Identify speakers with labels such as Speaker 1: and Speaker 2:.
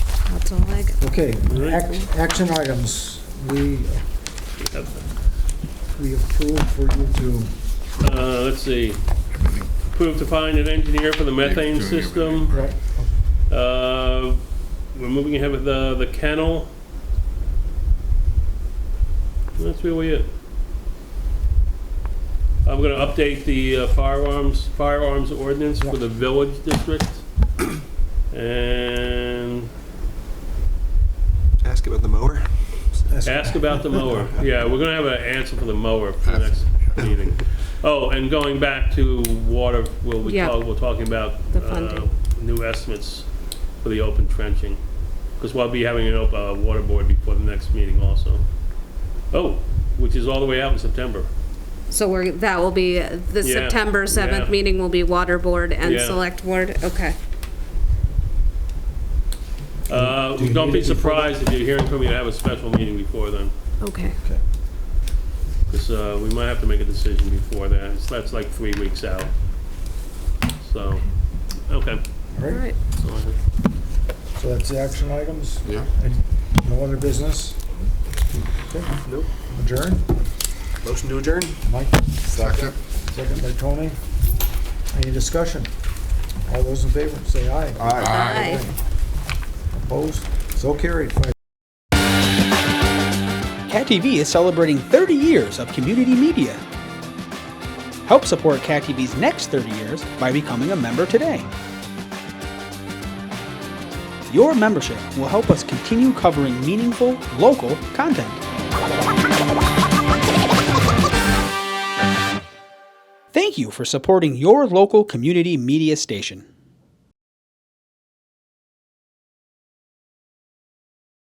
Speaker 1: That's all I got.
Speaker 2: Okay, ac- action items. We, we approve for you to,
Speaker 3: Uh, let's see, approved to find an engineer for the methane system.
Speaker 2: right,
Speaker 3: Uh, We're moving ahead with the, the kennel. That's really it. I'm gonna update the uh, firearms, firearms ordinance for the village district. And
Speaker 4: Ask about the mower.
Speaker 3: Ask about the mower. Yeah, we're gonna have an answer for the mower for the next meeting. Oh, and going back to water, we'll, we
Speaker 1: Yeah.
Speaker 3: talk, we're talking about,
Speaker 1: The
Speaker 3: uh,
Speaker 1: funding.
Speaker 3: new estimates for the open trenching. Because we'll be having an op, uh, water board before the next meeting also. Oh, which is all the way out in September.
Speaker 1: So we're, that will be, the
Speaker 3: Yeah,
Speaker 1: September 7th
Speaker 3: yeah.
Speaker 1: meeting will be Water Board and
Speaker 3: Yeah.
Speaker 1: Select Board? Okay.
Speaker 3: Uh,
Speaker 2: Do you
Speaker 3: don't
Speaker 2: need
Speaker 3: be
Speaker 2: it before that?
Speaker 3: surprised if you're hearing from me to have a special meeting before then.
Speaker 1: Okay.
Speaker 2: okay.
Speaker 3: Because uh, we might have to make a decision before that. It's- That's like three weeks out. So, okay.
Speaker 2: All
Speaker 1: All
Speaker 2: right,
Speaker 1: right.
Speaker 3: So I think-
Speaker 2: so that's the action items.
Speaker 4: Yeah.
Speaker 2: And No other business? Okay.
Speaker 4: Nope.
Speaker 2: Adjourn?
Speaker 4: Motion to adjourn.
Speaker 2: Mike,
Speaker 4: Second.
Speaker 2: second by Tony. Any discussion? All those in favor, say aye.
Speaker 1: Bye.
Speaker 2: Opposed? So carried, five
Speaker 5: Cat TV is celebrating 30 years of community media. Help support Cat TV's next 30 years by becoming a member today. Your membership will help us continue covering meaningful, local content. Thank you for supporting your local community media station.